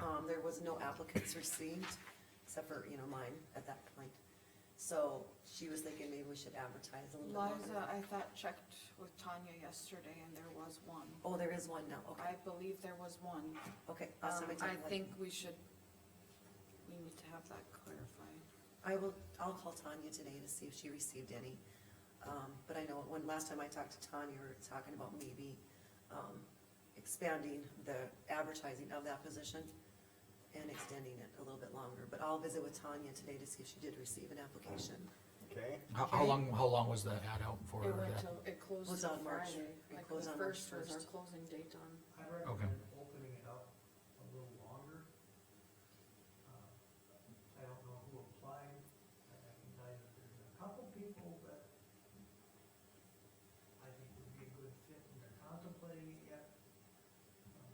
Um, there was no applicants received, except for, you know, mine at that point. So she was thinking maybe we should advertise a little bit Liza, longer. I thought checked with Tanya yesterday and there was one. Oh, there is one now, okay, I believe there was one. okay. I'll send Um, my I template. think we should, we need to have that clarified. I will, I'll call Tanya today to see if she received any. Um, but I know when, last time I talked to Tanya, we were talking about maybe, um, expanding the advertising of that position and extending it a little bit longer, but I'll visit with Tanya today to see if she did receive an application. Okay, How, how Okay. long, how long was that ad out for? It went that? till, it closed Was till on March- Friday, it like closed the on March first was our 1st. closing date on. I recommend opening it up a little longer. Uh, I don't know who applied, but I can tell you that there's a couple people that I think would be a good fit and they're contemplating it yet. Um,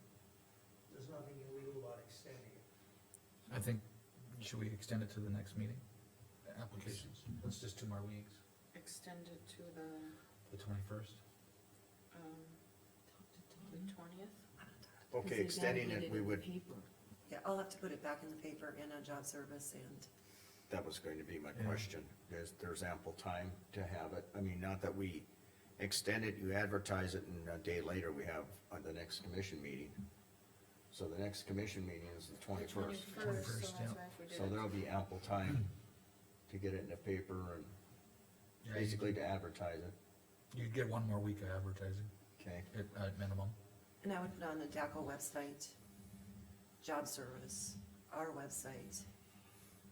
There's nothing illegal about extending it. I think, should we extend it to the next meeting? Applications, that's just two more weeks, Extended to the, the twenty-first. um, the twentieth? okay, extending it, we would, Yeah, I'll have to put it back in the paper and on job service and, that was going to be my Yeah. question. There's, there's ample time to have it. I mean, not that we extend it, you advertise it and a day later we have uh, the next commission meeting. So the next commission meeting is the twenty-first. Twenty-first, so that's 21st, yeah. why if we did So it- there'll be ample time to get it in the paper and basically to advertise it, You'd get one more week of advertising, okay? at, at minimum. and I would put on the DACO website, job service, our website,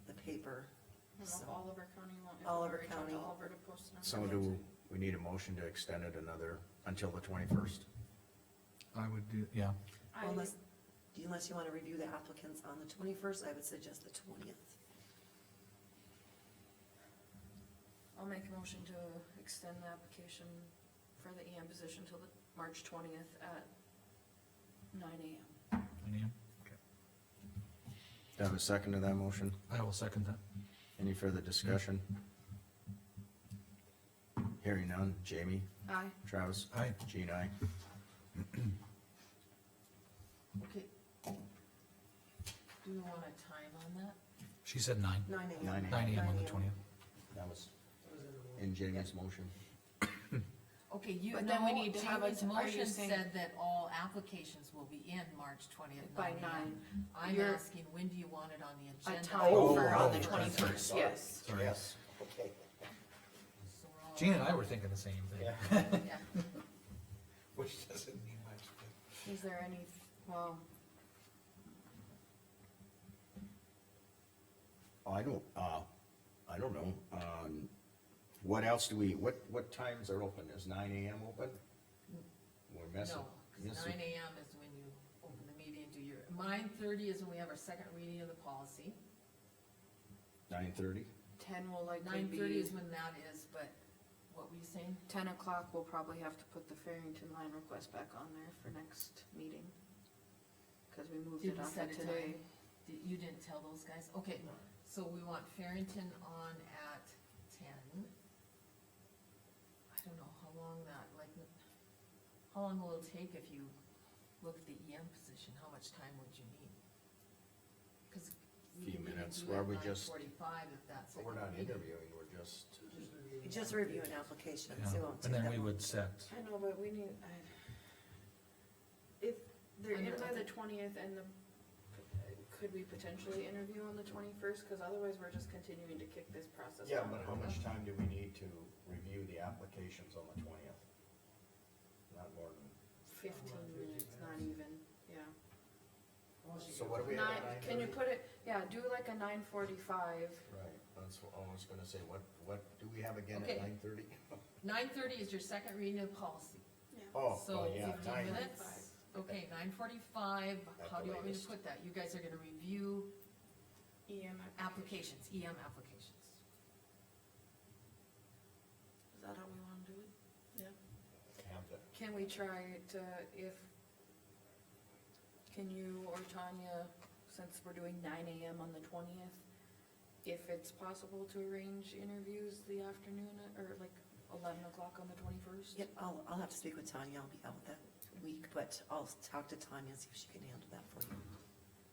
the paper. I don't So- know, Oliver County. won't- if we Oliver reach out to County. Oliver to post it on So their do, website. we need a motion to extend it another, until the twenty-first? I would do, yeah. I- Unless, unless you wanna review the applicants on the twenty-first, I would suggest the twentieth. I'll make a motion to extend the application for the EM position till the March twentieth at nine AM. Any- Do I have a second to that motion? I will second that. Any further discussion? Hearing none, Jamie, Aye. Travis, Aye. Jean, I. Okay. Do you want a time on that? She said nine, Nine AM. Nine nine AM on the 9 twentieth. That was That was in the motion. in Jamie's motion. Okay, you, But then we no, need to have a- Jamie's are you motion saying- said that all applications will be in March twentieth, By nine nine. AM. I'm You're- asking, when do you want it on the A agenda? time for on the oh, sorry, twenty-first, yes. Sorry. Okay. So we're all- Gina and I were thinking the same thing. Yeah. Which doesn't mean much. but- Is there any, well, I don't, uh, I don't know, um, what else do we, what, what times are open? Is nine AM open? We're messing. No, 'cause missing- nine AM is when you open the meeting and do your, nine thirty is when we have our second reading of the policy. Nine thirty? ten will likely Nine thirty be, is when that is, but what were you saying? ten o'clock, we'll probably have to put the Farrington line request back on there for next meeting. Cause we moved Did it we off set of a today. time? Did- You didn't tell those guys? Okay, so we want Farrington on at ten. I don't know how long that, like, how long will it take if you look at the EM position? How much time would you need? Cause. we Few can even minutes. do Why it don't we nine just- Forty-five if that's. We're not interviewing, we're just, Just reviewing Just applications. reviewing applications, it Yeah. won't take And that then long. we would set. I know, but we need, I. If they're in Under- by the twentieth and the, could we potentially interview on the twenty-first? Cause otherwise we're just continuing to kick this process. yeah, down but the how road. much time do we need to review the applications on the twentieth? Not more than, Fifteen minutes, not even, yeah. Unless you So get what do we have Nine, at can you 9:30? put it, yeah, do like a nine forty-five. right, that's what I was gonna say, what, what do we have again at Okay. nine thirty? Nine thirty is your second reading of policy. Oh, So well, yeah, fifteen nine, minutes, okay, nine forty-five, At how the do you want me to latest. put that? You guys are gonna review EM. applications, EM applications. Is that how we wanna do it? have the, Can we try to, if, can you or Tanya, since we're doing nine AM on the twentieth, if it's possible to arrange interviews the afternoon, or like eleven o'clock on the twenty-first? Yep, I'll, I'll have to speak with Tanya, I'll be out that week, but I'll talk to Tanya and see if she can handle that for you.